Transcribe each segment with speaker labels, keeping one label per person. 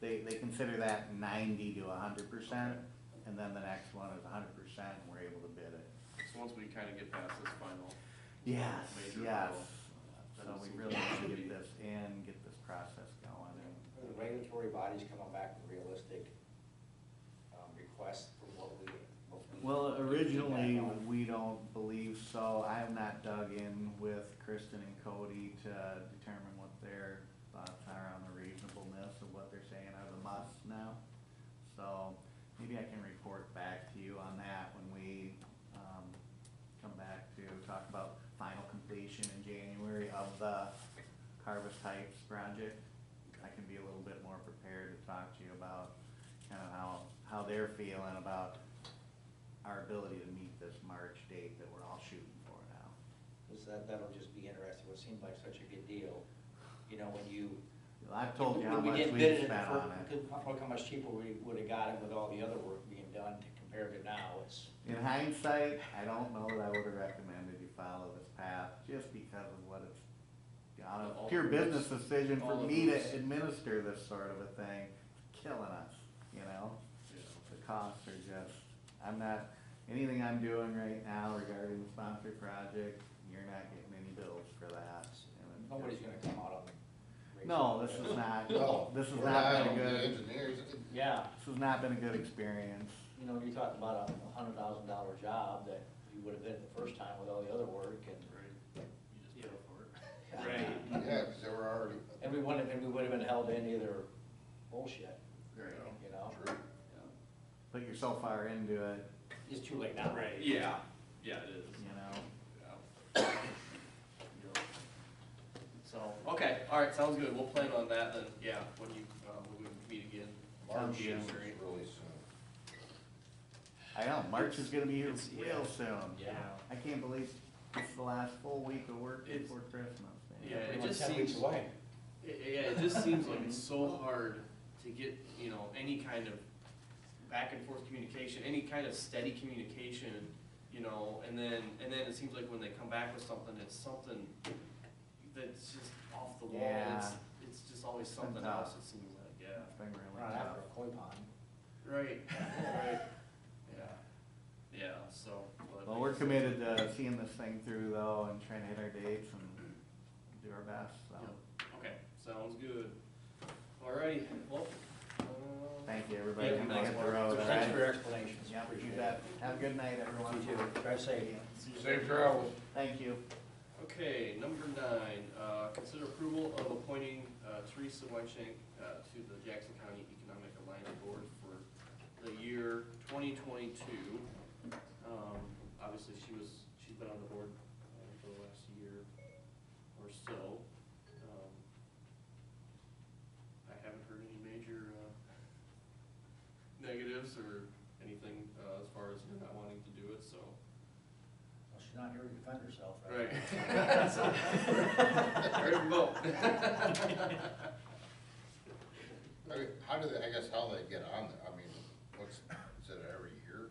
Speaker 1: They, they consider that ninety to hundred percent, and then the next one is hundred percent, and we're able to bid it.
Speaker 2: So once we kind of get past this final,
Speaker 1: Yes,
Speaker 2: Major
Speaker 1: yes.
Speaker 2: bill.
Speaker 1: So we really need to get this in, get this process going, and
Speaker 3: Are the regulatory bodies coming back with realistic um, requests for what we? what we-
Speaker 1: Well,
Speaker 3: Feedback
Speaker 1: originally,
Speaker 3: on?
Speaker 1: we don't believe so. I have not dug in with Kristen and Cody to determine what their thoughts are on the reasonableness of what they're saying are the musts now. So maybe I can report back to you on that when we, um, come back to talk about final completion in January of the harvest heights project. I can be a little bit more prepared to talk to you about kind of how, how they're feeling about our ability to meet this March date that we're all shooting for now.
Speaker 3: Because that, that'll just be interesting, what seemed like such a good deal, you know, when you.
Speaker 1: I've told you how
Speaker 3: when we
Speaker 1: much
Speaker 3: didn't bid
Speaker 1: we've
Speaker 3: it in the
Speaker 1: spent on
Speaker 3: fir-
Speaker 1: it.
Speaker 3: could- Look how much cheaper we would've got it with all the other work being done to compare to now, it's,
Speaker 1: In hindsight, I don't know that I would have recommended you follow this path just because of what it's, on a
Speaker 2: All the
Speaker 1: pure
Speaker 2: rules.
Speaker 1: business decision for
Speaker 2: All the
Speaker 1: me
Speaker 2: rules.
Speaker 1: to administer this sort of a thing, it's killing us, you know?
Speaker 2: you know,
Speaker 1: The costs are just, I'm not, anything I'm doing right now regarding the sponsored project, you're not getting any bills for that. and it's just-
Speaker 3: nobody's gonna come out on. the-
Speaker 1: No, this is not,
Speaker 4: No,
Speaker 1: this has
Speaker 4: we're
Speaker 1: not
Speaker 4: on
Speaker 1: been a
Speaker 4: the
Speaker 1: good,
Speaker 4: Engineers.
Speaker 3: Yeah,
Speaker 1: this has not been a good experience.
Speaker 3: you know, you're talking about a hundred thousand dollar job that you would've bid the first time with all the other work and.
Speaker 2: right? You just pay for it.
Speaker 4: Yeah, because they were already.
Speaker 3: And we wouldn't, and we would've been held to any of their bullshit,
Speaker 2: Right.
Speaker 3: you know?
Speaker 4: True.
Speaker 1: But you're so far into it,
Speaker 3: It's too late now.
Speaker 2: Right, yeah, yeah, it is.
Speaker 1: you know.
Speaker 2: Yeah. Yep.
Speaker 3: So,
Speaker 2: Okay, all right, sounds good. We'll plan on that then, yeah, when you, uh, when we meet again.
Speaker 4: March is
Speaker 2: January.
Speaker 4: really soon.
Speaker 1: I know, March is gonna be here
Speaker 2: It's- yeah.
Speaker 1: real soon.
Speaker 3: Yeah.
Speaker 1: I can't believe it's the last full week of work
Speaker 2: It's-
Speaker 1: before Christmas. man.
Speaker 2: Yeah, it
Speaker 3: pretty much
Speaker 2: just
Speaker 3: ten weeks
Speaker 2: seems-
Speaker 3: away.
Speaker 2: Yeah, Yeah, it just seems like it's so hard to get, you know, any kind of back and forth communication, any kind of steady communication, you know, and then, and then it seems like when they come back with something, it's something that's just off the wall, it's,
Speaker 1: Yeah.
Speaker 2: it's just always something
Speaker 1: tough.
Speaker 2: else, it seems like,
Speaker 1: It's
Speaker 2: yeah.
Speaker 1: been really
Speaker 3: We're not after
Speaker 1: tough.
Speaker 3: a koi pond.
Speaker 2: Right, right, yeah, yeah, so. but-
Speaker 1: Well, we're committed to seeing this thing through though and trying to hit our dates and do our best, so.
Speaker 2: Yep, Okay, sounds good. Alrighty, well, uh,
Speaker 1: Thank you, everybody.
Speaker 2: Yeah,
Speaker 1: Come
Speaker 2: thanks,
Speaker 1: hit the
Speaker 2: Mark.
Speaker 1: road, all
Speaker 3: Thanks for your
Speaker 1: right?
Speaker 3: explanations.
Speaker 1: Yeah, you
Speaker 3: Appreciate it.
Speaker 1: bet. Have a good night, everyone.
Speaker 3: You too. Drive safe.
Speaker 4: Safe travels.
Speaker 1: Thank you.
Speaker 2: Okay, number nine, uh, consider approval of appointing uh, Teresa Wengshank uh, to the Jackson County Economic Alliance Board for the year twenty twenty-two. Um, Obviously, she was, she's been on the board uh, for the last year or so. Um, I haven't heard any major uh, negatives or anything uh, as far as her not wanting to do it, so.
Speaker 3: Well, she's not here to defend herself,
Speaker 2: Right.
Speaker 3: right?
Speaker 2: Ready to vote.
Speaker 4: I mean, how do they, I guess how they get on there, I mean, what's, is it every year?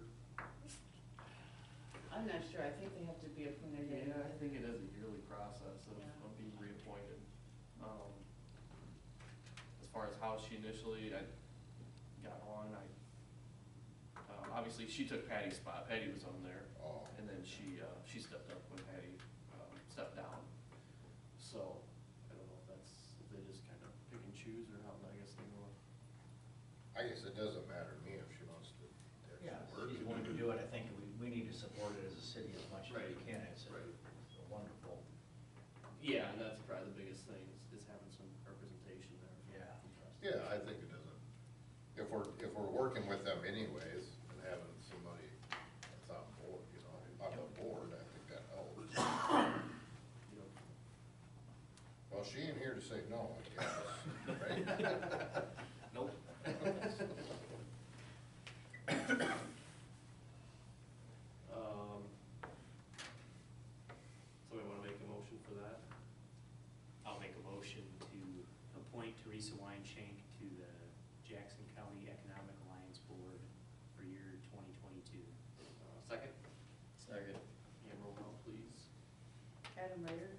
Speaker 5: I'm not sure, I think they have to be appointed uh,
Speaker 2: Yeah,
Speaker 5: annually.
Speaker 2: I think it is a yearly process of,
Speaker 5: Yeah.
Speaker 2: of being reappointed. Um, As far as how she initially, I got on, I, um, obviously she took Patty's spot, Patty was on there.
Speaker 4: Oh,
Speaker 2: And then she, uh, she stepped up when Patty, um, stepped down. So, I don't know if that's, if they just kind of pick and choose or how, I guess they go.
Speaker 4: I guess it doesn't matter to me if she wants to.
Speaker 3: Yeah,
Speaker 4: work.
Speaker 3: she's willing to do it. I think we, we need to support it as a city as much as we
Speaker 2: Right.
Speaker 3: can. It's a-
Speaker 2: Right.
Speaker 3: it's a wonderful,
Speaker 2: Yeah, and that's probably the biggest thing, is, is having some representation there.
Speaker 3: yeah.
Speaker 4: Yeah, I think it doesn't, if we're, if we're working with them anyways, and having somebody that's on board, you know, on the board, I think that helps.
Speaker 2: You know,
Speaker 4: Well, she ain't here to say no, I guess, right?
Speaker 2: Nope. Um, somebody wanna make a motion for that?
Speaker 6: I'll make a motion to appoint Teresa Weinshank to the Jackson County Economic Alliance Board for year twenty twenty-two.
Speaker 2: Uh, second? Second. And roll call, please.
Speaker 5: Adam Ryder,